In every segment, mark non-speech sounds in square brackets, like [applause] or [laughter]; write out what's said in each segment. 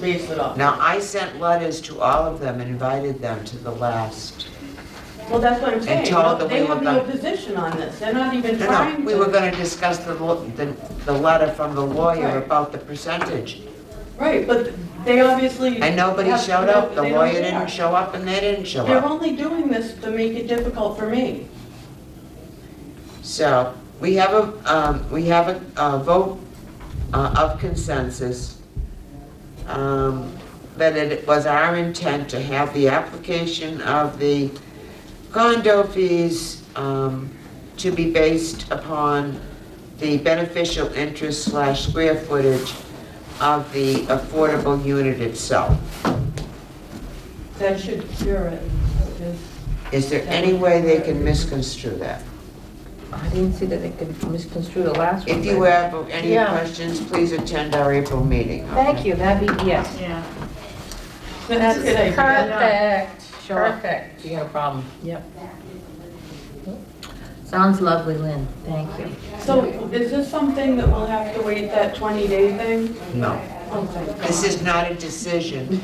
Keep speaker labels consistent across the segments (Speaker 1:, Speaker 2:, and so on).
Speaker 1: base it off.
Speaker 2: Now, I sent letters to all of them and invited them to the last.
Speaker 1: Well, that's what I'm saying, you
Speaker 2: told
Speaker 1: know,
Speaker 2: that
Speaker 1: they
Speaker 2: we
Speaker 1: have
Speaker 2: were
Speaker 1: no
Speaker 2: gonna-
Speaker 1: position on this, they're not even
Speaker 2: No,
Speaker 1: trying
Speaker 2: no,
Speaker 1: to.
Speaker 2: we were gonna discuss the, lo- the, the letter from the lawyer
Speaker 1: Right.
Speaker 2: about the percentage.
Speaker 1: Right, but they obviously.
Speaker 2: And nobody
Speaker 1: have-
Speaker 2: showed up, the
Speaker 1: they don't
Speaker 2: lawyer
Speaker 1: care.
Speaker 2: didn't show up and they didn't show
Speaker 1: They're
Speaker 2: up.
Speaker 1: only doing this to make it difficult for me.
Speaker 2: So, we have a, um, we have a, a vote uh, of consensus. um, That it was our intent to have the application of the condo fees, um, to be based upon the beneficial interest slash square footage of the affordable unit itself.
Speaker 1: That should cure it. It's-
Speaker 2: Is there any way they can misconstrue that?
Speaker 3: I didn't see that they could misconstrue the last one.
Speaker 2: If you
Speaker 3: but-
Speaker 2: have any
Speaker 3: Yeah.
Speaker 2: questions, please attend our April meeting. okay?
Speaker 3: Thank you, that'd be, yes.
Speaker 4: Yeah.
Speaker 1: That's a good idea.
Speaker 3: Perfect,
Speaker 4: Sure.
Speaker 3: perfect. You got a problem? Yep. Sounds lovely, Lynn, thank you.
Speaker 1: So is this something that we'll have to wait that 20-day thing?
Speaker 2: No,
Speaker 1: Oh, thank God.
Speaker 2: this is not a decision.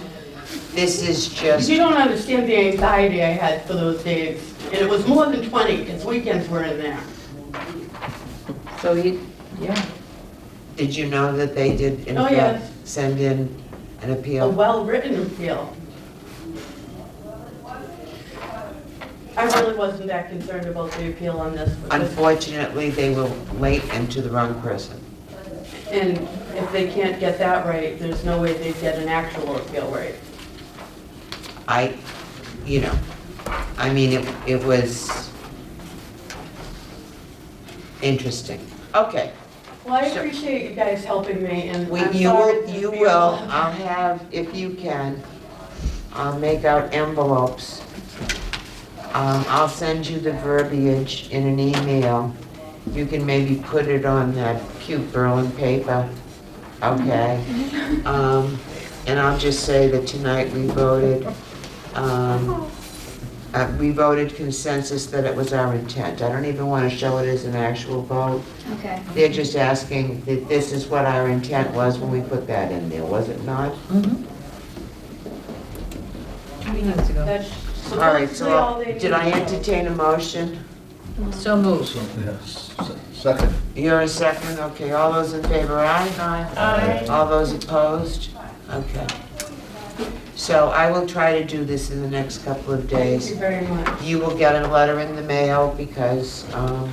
Speaker 2: This is just,
Speaker 1: You don't understand the anxiety I had for those days, and it was more than 20, because weekends were in there.
Speaker 3: So you, yeah,
Speaker 2: did you know that they did in
Speaker 1: Oh,
Speaker 2: fact
Speaker 1: yes.
Speaker 2: send in an
Speaker 1: a
Speaker 2: appeal?
Speaker 1: well-written appeal. I really wasn't that concerned about the appeal on this, because-
Speaker 2: Unfortunately, they were late and to the wrong person.
Speaker 1: and if they can't get that right, there's no way they'd get an actual appeal right.
Speaker 2: I, you know, I mean, it, it was interesting. Okay,
Speaker 1: Well, I
Speaker 2: Sure.
Speaker 1: appreciate you guys helping me, and
Speaker 2: we,
Speaker 1: I'm
Speaker 2: you
Speaker 1: sorry
Speaker 2: will,
Speaker 1: to
Speaker 2: you
Speaker 1: be-
Speaker 2: will, I'll have, if you can, I'll make out envelopes. Um, I'll send you the verbiage in an email. You can maybe put it on that cute Berlin paper,
Speaker 1: [laughs]
Speaker 2: okay? Um, and I'll just say that tonight we voted, um, uh, we voted consensus that it was our intent. I don't even wanna show it as an actual vote.
Speaker 4: Okay.
Speaker 2: They're just asking that this is what our intent was when we put that in there, was it not?
Speaker 3: Mm-hmm. meetings ago.
Speaker 1: That's
Speaker 2: All right,
Speaker 1: supposedly all
Speaker 2: so uh,
Speaker 1: they need.
Speaker 2: did
Speaker 1: to
Speaker 2: I
Speaker 1: know.
Speaker 2: entertain a motion?
Speaker 3: So moved.
Speaker 5: So, yes, se- second.
Speaker 2: You're a second, okay, all those in favor, aye? Aye. All those opposed? Okay. So I will try to do this in the next couple of
Speaker 1: Thank you
Speaker 2: days.
Speaker 1: very much.
Speaker 2: You will get a letter in the mail because, um,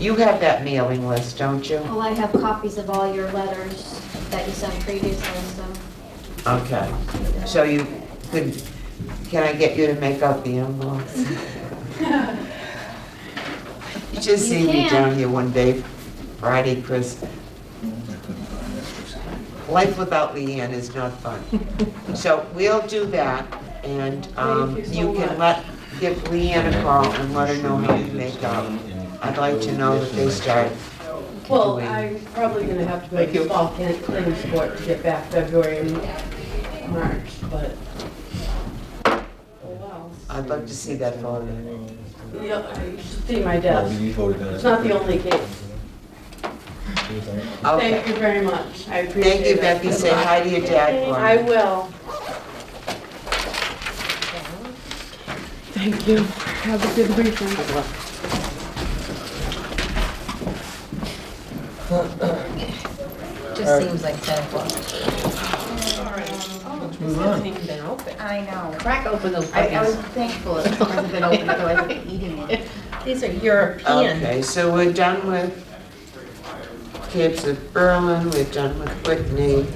Speaker 2: you have that mailing list, don't you?
Speaker 4: Well, I have copies of all your letters that you sent previously, so.
Speaker 2: Okay, so you could, can I get you to make out the envelopes? You should see me
Speaker 4: You can.
Speaker 2: down here one day, Friday, Chris. Life without Leanne is not fun. So we'll do that, and um,
Speaker 1: Thank you so
Speaker 2: you
Speaker 1: much.
Speaker 2: can let, give Leanne a call and let her know how you make out. I'd like to know that they start.
Speaker 1: Well,
Speaker 2: doing-
Speaker 1: I'm probably gonna have to go to fall camp claims court to get back February and March, but. Oh, wow.
Speaker 2: I'd like to see that photo.
Speaker 1: Yeah, you should see my
Speaker 5: Well,
Speaker 1: desk.
Speaker 5: you voted on it.
Speaker 1: It's not the only case.
Speaker 2: Okay,
Speaker 1: Thank you very much. I appreciate it.
Speaker 2: thank you, Becky, say hi to your dad for me.
Speaker 1: I will.
Speaker 6: Thank you. Have a good weekend.
Speaker 3: Just seems like 10 o'clock.
Speaker 5: Let's move on.
Speaker 3: It's been open.
Speaker 7: I know.
Speaker 3: Crack open those
Speaker 7: I, I was
Speaker 3: puppies.
Speaker 7: thankful it hasn't been open, otherwise I'd be eating it.
Speaker 3: These are European.
Speaker 2: Okay, so we're done with Capes of Berlin, we're done with Whitney.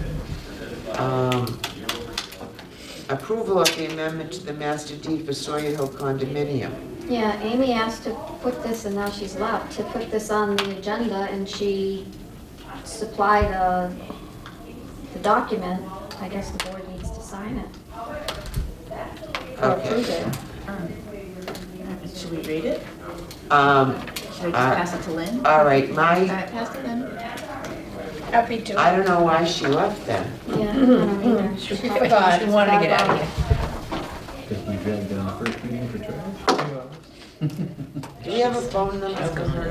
Speaker 2: Um, Approval of the amendment to the master deed for Sawyer Hill condominium.
Speaker 4: Yeah, Amy asked to put this, and now she's left, to put this on the agenda, and she supplied uh, the document. I guess the board needs to sign it.
Speaker 2: Okay.
Speaker 7: Should we read it?
Speaker 2: Um,
Speaker 7: Should we just pass it to Lynn?
Speaker 2: all right,
Speaker 7: All
Speaker 2: my,
Speaker 7: right, pass it then.
Speaker 3: Happy to.
Speaker 2: I don't know why she left then.
Speaker 4: Yeah, I don't either.
Speaker 3: She forgot, she wanted to get out of here.
Speaker 5: Because we dragged down the first meeting for trash.
Speaker 2: Do we have a phone number for her?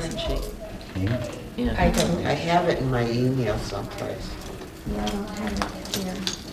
Speaker 3: I don't.
Speaker 2: I have it in my email someplace.
Speaker 4: Yeah, I don't have it here.